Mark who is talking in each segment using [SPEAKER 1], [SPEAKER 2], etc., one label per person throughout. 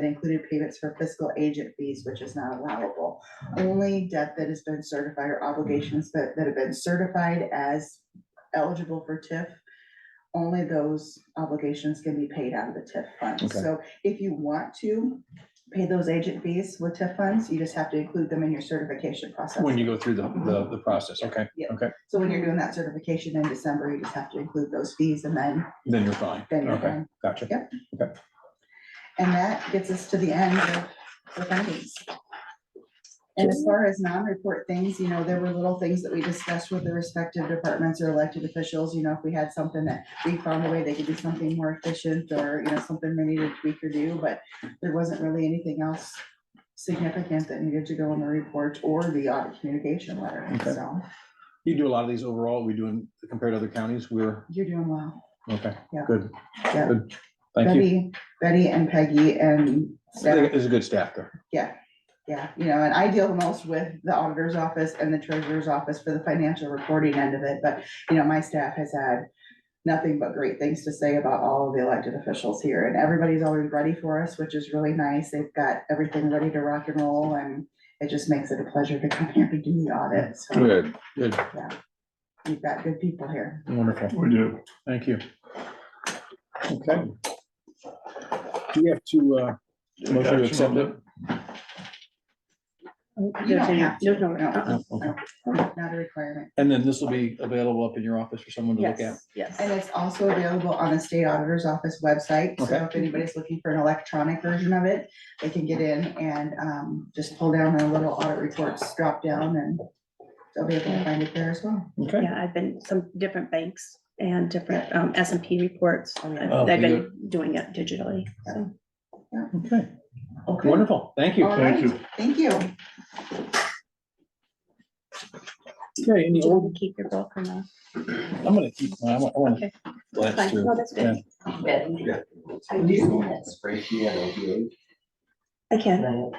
[SPEAKER 1] that included payments for fiscal agent fees, which is not allowable. Only debt that has been certified or obligations that, that have been certified as eligible for TIF, only those obligations can be paid out of the TIF fund.
[SPEAKER 2] Okay.
[SPEAKER 1] So if you want to pay those agent fees with TIF funds, you just have to include them in your certification process.
[SPEAKER 2] When you go through the, the, the process, okay,
[SPEAKER 1] So when you're doing that certification in December, you just have to include those fees and then,
[SPEAKER 2] then you're fine.
[SPEAKER 1] then you're
[SPEAKER 2] Okay,
[SPEAKER 1] done.
[SPEAKER 2] gotcha.
[SPEAKER 1] And that gets us to the end of the findings. And as far as non-report things, you know, there were little things that we discussed with the respective departments or elected officials, you know, if we had something that we found a way they could do something more efficient or, you know, something they needed to tweak or do, but there wasn't really anything else significant that needed to go in the report or the audit communication letter,
[SPEAKER 2] Okay.
[SPEAKER 1] so
[SPEAKER 2] You do a lot of these overall, we doing, compared to other counties, we're,
[SPEAKER 1] you're doing well.
[SPEAKER 2] okay,
[SPEAKER 1] Yeah.
[SPEAKER 2] good,
[SPEAKER 1] Yeah.
[SPEAKER 2] good. Thank you.
[SPEAKER 1] Betty, Betty and Peggy and staff
[SPEAKER 2] There's a good staff there.
[SPEAKER 1] Yeah, yeah, you know, and I deal the most with the auditor's office and the treasurer's office for the financial reporting end of it, but, you know, my staff has had nothing but great things to say about all of the elected officials here, and everybody's always ready for us, which is really nice. They've got everything ready to rock and roll, and it just makes it a pleasure to come here to do the audit, so
[SPEAKER 3] Good.
[SPEAKER 2] Good,
[SPEAKER 1] we've got good people here.
[SPEAKER 2] wonderful.
[SPEAKER 3] We do.
[SPEAKER 2] Thank you. Okay. Do we have to, uh, motion to accept it?
[SPEAKER 1] You don't have to.
[SPEAKER 4] There's no- uh-uh.
[SPEAKER 1] No,
[SPEAKER 2] Oh, okay.
[SPEAKER 1] no, Not a requirement.
[SPEAKER 2] And then this will be available up in your office for someone to look at?
[SPEAKER 4] Yes, yes.
[SPEAKER 1] And it's also available on the state auditor's office website, so
[SPEAKER 2] Okay.
[SPEAKER 1] if anybody's looking for an electronic version of it, they can get in and, um, just pull down the little audit reports drop down and they'll be able to find it there as well.
[SPEAKER 2] Okay,
[SPEAKER 4] Yeah, I've been some different banks and different um S and P reports.
[SPEAKER 1] Oh, yeah.
[SPEAKER 2] Oh,
[SPEAKER 4] I've- They've
[SPEAKER 2] you-
[SPEAKER 4] been doing it digitally, so.
[SPEAKER 2] okay,
[SPEAKER 1] Okay.
[SPEAKER 2] wonderful, thank you.
[SPEAKER 1] All
[SPEAKER 2] Okay,
[SPEAKER 3] Thank
[SPEAKER 1] right,
[SPEAKER 3] you.
[SPEAKER 1] Thank you.
[SPEAKER 2] any
[SPEAKER 4] Do you
[SPEAKER 2] old,
[SPEAKER 1] Oh.
[SPEAKER 4] want to keep your book or no?
[SPEAKER 2] I'm gonna keep, I want, I want to
[SPEAKER 4] Okay.
[SPEAKER 2] glance
[SPEAKER 4] Fine.
[SPEAKER 2] through.
[SPEAKER 4] No, that's good.
[SPEAKER 2] Yeah.
[SPEAKER 5] Yeah.
[SPEAKER 4] I do.
[SPEAKER 5] Breaking and opioid.
[SPEAKER 4] I can,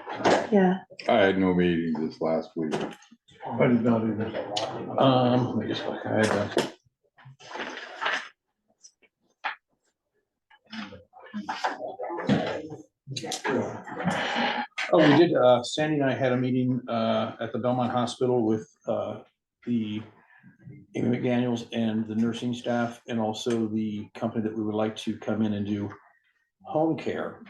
[SPEAKER 4] yeah.
[SPEAKER 3] I had no meetings this last week.
[SPEAKER 5] I did not either.
[SPEAKER 2] Um, let me just look, I had, uh, Oh, we did, uh, Sandy and I had a meeting, uh, at the Belmont Hospital with, uh, the Amy McDaniels and the nursing staff and also the company that we would like to come in and do home care,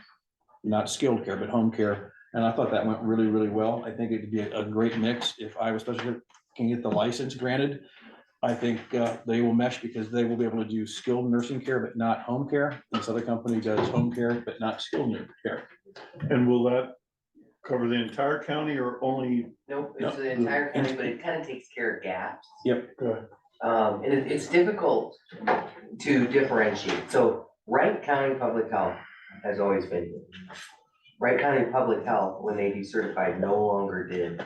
[SPEAKER 2] not skilled care, but home care. And I thought that went really, really well. I think it'd be a, a great mix if Iowa Special can get the license granted. I think, uh, they will mesh because they will be able to do skilled nursing care, but not home care. This other company does home care, but not skilled care.
[SPEAKER 3] And
[SPEAKER 6] Will that cover the entire county or only,
[SPEAKER 5] Nope,
[SPEAKER 2] No.
[SPEAKER 5] it's the entire county, but it kind of takes care of gaps.
[SPEAKER 2] Yep.
[SPEAKER 6] Good.
[SPEAKER 5] Um, and it- it's difficult to differentiate. So Wright County Public Health has always been. here. Wright County Public Health, when they decertified, no longer did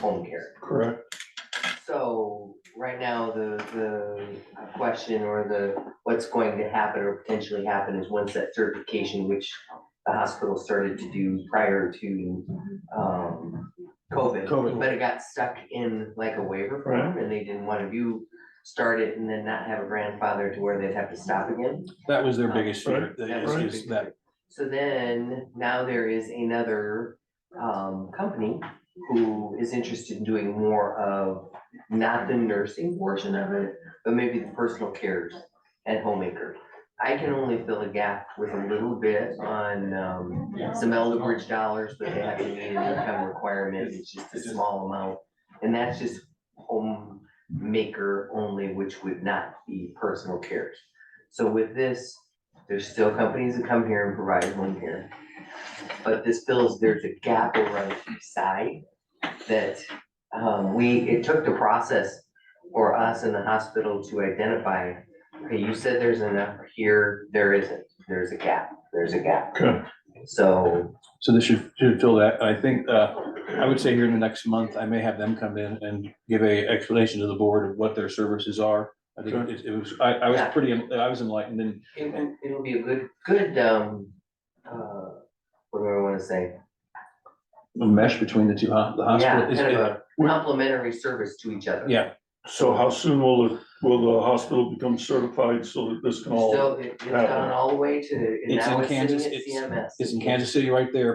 [SPEAKER 5] home care.
[SPEAKER 6] correct?
[SPEAKER 5] So right now, the, the question or the, what's going to happen or potentially happen is once that certification, which the hospital started to do prior to, um, COVID.
[SPEAKER 2] COVID.
[SPEAKER 5] But it got stuck in like a waiver form and they didn't want to do, start it and then not have a grandfather to where they'd have to stop again.
[SPEAKER 2] That was their biggest fear,
[SPEAKER 6] Right.
[SPEAKER 2] that
[SPEAKER 5] That
[SPEAKER 2] is-
[SPEAKER 5] was
[SPEAKER 2] is
[SPEAKER 5] big.
[SPEAKER 2] that,
[SPEAKER 5] So then, now there is another um company who is interested in doing more of not the nursing portion of it, but maybe the personal cares and homemaker. I can only fill a gap with a little bit on um some elder bridge dollars, but they have to meet an income requirement, it's just a small amount. And that's just homemaker only, which would not be personal cares. So with this, there's still companies that come here and provide home care. But this feels there's a gap over on the east side that um, we, it took the process for us in the hospital to identify, okay, you said there's enough here, there isn't, there's a gap, there's a gap.
[SPEAKER 6] Okay.
[SPEAKER 5] So
[SPEAKER 2] so this should, should fill that, I think, uh, I would say here in the next month, I may have them come in and give a explanation to the board of what their services are. I think
[SPEAKER 6] Sure.
[SPEAKER 2] it, it was, I, I was pretty, I was enlightened and
[SPEAKER 5] it will- it'll be a good, good, um, uh, what do I wanna say?
[SPEAKER 2] a mesh between the two, hos- the
[SPEAKER 5] Yeah,
[SPEAKER 2] hospital.
[SPEAKER 5] kind
[SPEAKER 2] is-
[SPEAKER 5] of a complimentary service to each other.
[SPEAKER 2] Yeah,
[SPEAKER 6] So how soon will it Will the hospital become certified so that this can all?
[SPEAKER 5] Still, it- it's
[SPEAKER 6] Yeah.
[SPEAKER 5] gone all the way to, and
[SPEAKER 2] It's
[SPEAKER 5] now
[SPEAKER 2] in
[SPEAKER 5] it's sitting
[SPEAKER 2] Kansas,
[SPEAKER 5] at
[SPEAKER 2] it's-
[SPEAKER 5] CMS.
[SPEAKER 2] It's in Kansas City right there,